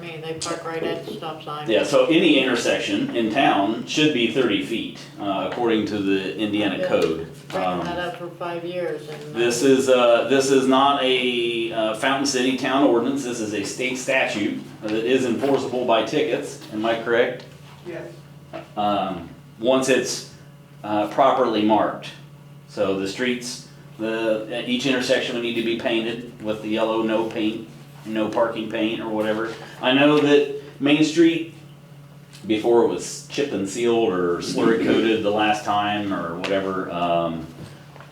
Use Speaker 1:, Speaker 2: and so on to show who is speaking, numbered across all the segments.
Speaker 1: mean, they park right at the stop sign.
Speaker 2: Yeah, so any intersection in town should be thirty feet, uh, according to the Indiana
Speaker 1: Yeah.
Speaker 2: code.
Speaker 1: Bringing that
Speaker 2: Um,
Speaker 1: up for five years and. uh,
Speaker 2: This is, uh, this is not a uh, Fountain City town ordinance, this is a state statute that is enforceable by tickets, am I correct?
Speaker 3: Yes.
Speaker 2: Um, once it's, uh, properly marked. So the streets, the, at each intersection would need to be painted with the yellow no paint, no parking paint or whatever. I know that Main Street, before it was chip and sealed or slurry coated the last time or whatever, um,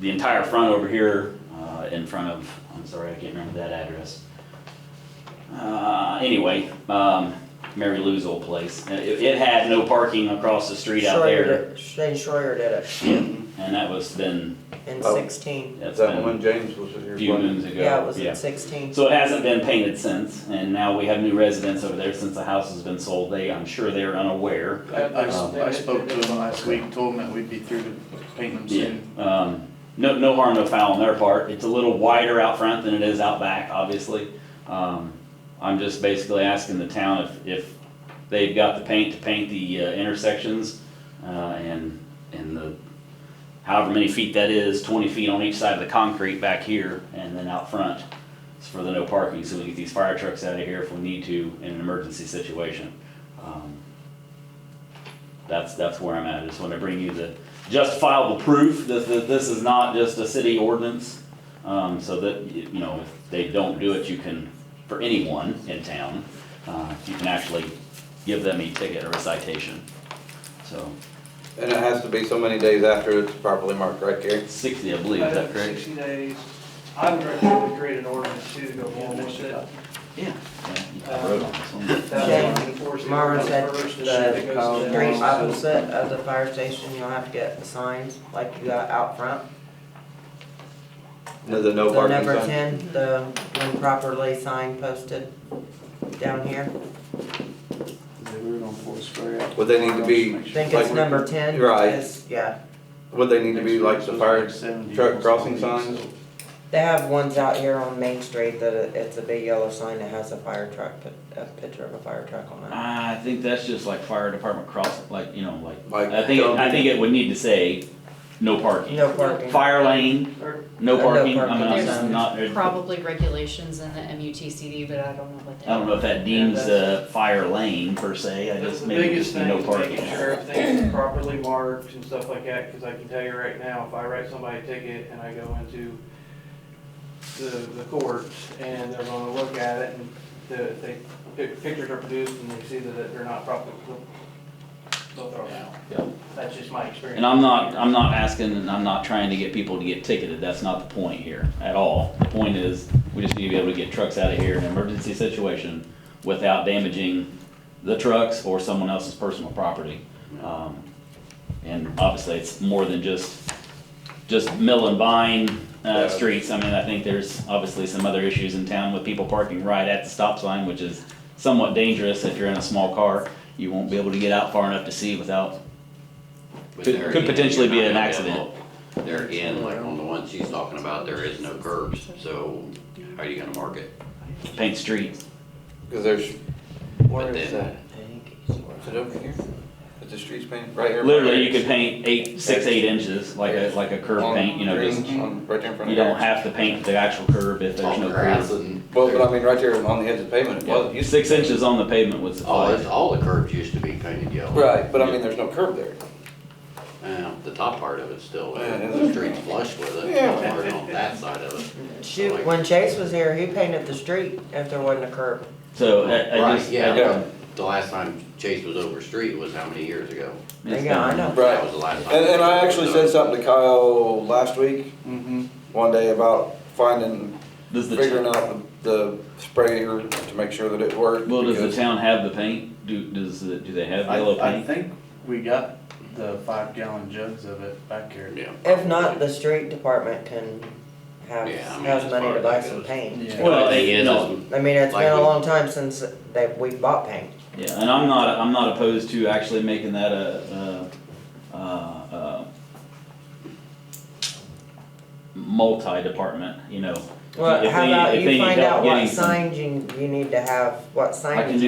Speaker 2: the entire front over here, uh, in front of, I'm sorry, I can't remember that address. Uh, anyway, um, Mary Lou's old place, it, it had no parking across the street out
Speaker 4: Schroyer
Speaker 2: there.
Speaker 4: did, Shane Schroyer did it
Speaker 2: And that was then,
Speaker 4: in
Speaker 5: Oh.
Speaker 4: sixteen.
Speaker 2: that's
Speaker 5: Is that
Speaker 2: been
Speaker 5: when James was here?
Speaker 2: a few
Speaker 5: playing?
Speaker 2: moons ago.
Speaker 4: Yeah, it was in sixteen.
Speaker 2: So it hasn't been painted since, and now we have new residents over there since the house has been sold. They, I'm sure they're unaware.
Speaker 6: I, I- I spoke to him last week, told him that we'd be through to painting them
Speaker 2: Yeah.
Speaker 6: soon.
Speaker 2: Um, no, no harm, no foul on their part. It's a little wider out front than it is out back, obviously. Um, I'm just basically asking the town if, if they've got the paint to paint the uh, intersections, uh, and, and the, however many feet that is, twenty feet on each side of the concrete back here, and then out front. It's for the no parking, so we can get these fire trucks out of here if we need to in an emergency situation. Um, That's, that's where I'm at, I just wanna bring you the justifiable proof that, that this is not just a city ordinance. Um, so that, you you know, if they don't do it, you can, for anyone in town, uh, you can actually give them a ticket or a citation. So,
Speaker 5: And it has to be so many days after it's properly marked, right, Gary?
Speaker 2: sixty, I believe, is that correct?
Speaker 7: Sixty days. I would recommend we create an ordinance too to go along with it.
Speaker 2: Yeah. Uh, I wrote on this one.
Speaker 7: That's enforced
Speaker 4: Mara said
Speaker 7: first, and
Speaker 4: the
Speaker 7: it goes to the
Speaker 4: street
Speaker 7: office.
Speaker 4: opposite of the fire station, you'll have to get the signs like you got out front.
Speaker 5: There's a no
Speaker 4: The
Speaker 5: parking
Speaker 4: number
Speaker 5: sign?
Speaker 4: ten, the when properly signed posted down here.
Speaker 6: They were on Fourth Square.
Speaker 5: Would they need to be-
Speaker 4: I think it's
Speaker 5: Like-
Speaker 4: number ten.
Speaker 5: Right.
Speaker 4: It's- Yeah,
Speaker 5: Would they need to be like the fire truck crossing signs?
Speaker 4: they have ones out here on Main Street that it- it's a big yellow sign that has a fire truck, pi- a picture of a fire truck on it.
Speaker 2: I think that's just like fire department cross, like, you know, like,
Speaker 5: Like,
Speaker 2: I think, I think it would need to say, no parking.
Speaker 4: No parking.
Speaker 2: Fire lane,
Speaker 7: Or-
Speaker 2: no
Speaker 4: No
Speaker 2: parking, I
Speaker 4: parking.
Speaker 2: mean, I'm
Speaker 8: There's
Speaker 2: just not, I
Speaker 8: Probably regulations in the MUTCD, but I don't know what they.
Speaker 2: don't know if that deems a fire lane per se, I
Speaker 7: That's
Speaker 2: just,
Speaker 7: the
Speaker 2: maybe
Speaker 7: biggest
Speaker 2: just
Speaker 7: thing,
Speaker 2: no
Speaker 7: is
Speaker 2: parking.
Speaker 7: making sure everything's properly marked and stuff like that, because I can tell you right now, if I write somebody a ticket and I go into the, the courts and they're gonna look at it and the, they, pic- pictures are produced and they see that they're not properly, they'll throw it out.
Speaker 2: Yeah.
Speaker 7: That's just my experience.
Speaker 2: And I'm not, I'm not asking, and I'm not trying to get people to get ticketed, that's not the point here at all. The point is, we just need to be able to get trucks out of here in an emergency situation without damaging the trucks or someone else's personal property. Um, And obviously, it's more than just, just mill and vine, uh,
Speaker 5: Yeah.
Speaker 2: streets, I mean, I think there's obviously some other issues in town with people parking right at the stop sign, which is somewhat dangerous if you're in a small car. You won't be able to get out far enough to see without
Speaker 9: But
Speaker 2: Could-
Speaker 9: there
Speaker 2: could
Speaker 9: again,
Speaker 2: potentially be
Speaker 9: you're
Speaker 2: an
Speaker 9: not gonna
Speaker 2: accident.
Speaker 9: have all- There again, like on the one she's talking about, there is no curbs, so how are you gonna mark it?
Speaker 2: paint streets.
Speaker 5: Cause there's,
Speaker 9: But
Speaker 5: where is that?
Speaker 9: then,
Speaker 5: Is it over here? Is the streets painted right here?
Speaker 2: Literally, you could paint eight, six, eight inches, like a, like a curb
Speaker 5: On
Speaker 2: paint, you know,
Speaker 5: green,
Speaker 2: just, you
Speaker 5: on- Right there in front of.
Speaker 2: don't
Speaker 5: Eric's.
Speaker 2: have to paint the actual curb if there's
Speaker 9: on
Speaker 2: no
Speaker 9: grass
Speaker 2: curb.
Speaker 9: and.
Speaker 5: Well, but I mean, right there on the edge of the pavement, it was.
Speaker 2: Yeah, Six inches on the pavement would
Speaker 9: All, it's-
Speaker 2: suffice.
Speaker 9: all the curbs used to be painted yellow.
Speaker 5: Right, but I mean, there's no curb there.
Speaker 9: Uh, the top part of it's still,
Speaker 5: Yeah,
Speaker 9: there.
Speaker 5: it is.
Speaker 9: the street's flush with it,
Speaker 5: Yeah.
Speaker 9: or on that side of it.
Speaker 4: Shoot, when Chase was here, he painted the street if there wasn't a curb.
Speaker 2: So I, I
Speaker 9: Right,
Speaker 2: just.
Speaker 9: yeah.
Speaker 5: Yeah,
Speaker 9: The last time Chase was over street was how many years ago?
Speaker 2: it's
Speaker 4: Yeah, I
Speaker 2: done.
Speaker 4: know.
Speaker 5: Right.
Speaker 9: That was the last time.
Speaker 5: And, and I actually said something to Kyle last week,
Speaker 6: Mm-hmm.
Speaker 5: one day about finding,
Speaker 2: Does
Speaker 5: figuring
Speaker 2: the,
Speaker 5: out the sprayer to make sure that it worked.
Speaker 2: well, does the
Speaker 5: because-
Speaker 2: town have the paint? Do, does, the- do they have
Speaker 6: I,
Speaker 2: yellow
Speaker 6: I
Speaker 2: paint?
Speaker 6: think we got the five gallon jugs of it back here.
Speaker 9: Yeah.
Speaker 4: If not, the street department can have,
Speaker 9: Yeah, I mean,
Speaker 4: has
Speaker 9: as
Speaker 4: money
Speaker 9: far
Speaker 4: to
Speaker 9: as
Speaker 4: buy
Speaker 9: that
Speaker 4: some
Speaker 9: goes.
Speaker 4: paint.
Speaker 6: Yeah.
Speaker 2: Well,
Speaker 9: The
Speaker 2: they-
Speaker 9: thing is,
Speaker 2: no.
Speaker 9: is
Speaker 4: I mean, it's been a
Speaker 9: Like we-
Speaker 4: long time since that we bought paint.
Speaker 2: Yeah, and I'm not, I'm not opposed to actually making that a, a, uh, uh, multi-department, you know.
Speaker 4: Well,
Speaker 2: If
Speaker 4: how
Speaker 2: they-
Speaker 4: about
Speaker 2: if they
Speaker 4: you
Speaker 2: need
Speaker 4: find
Speaker 2: help
Speaker 4: out what
Speaker 2: getting some-
Speaker 4: signs you, you need to have, what
Speaker 2: I can
Speaker 4: signs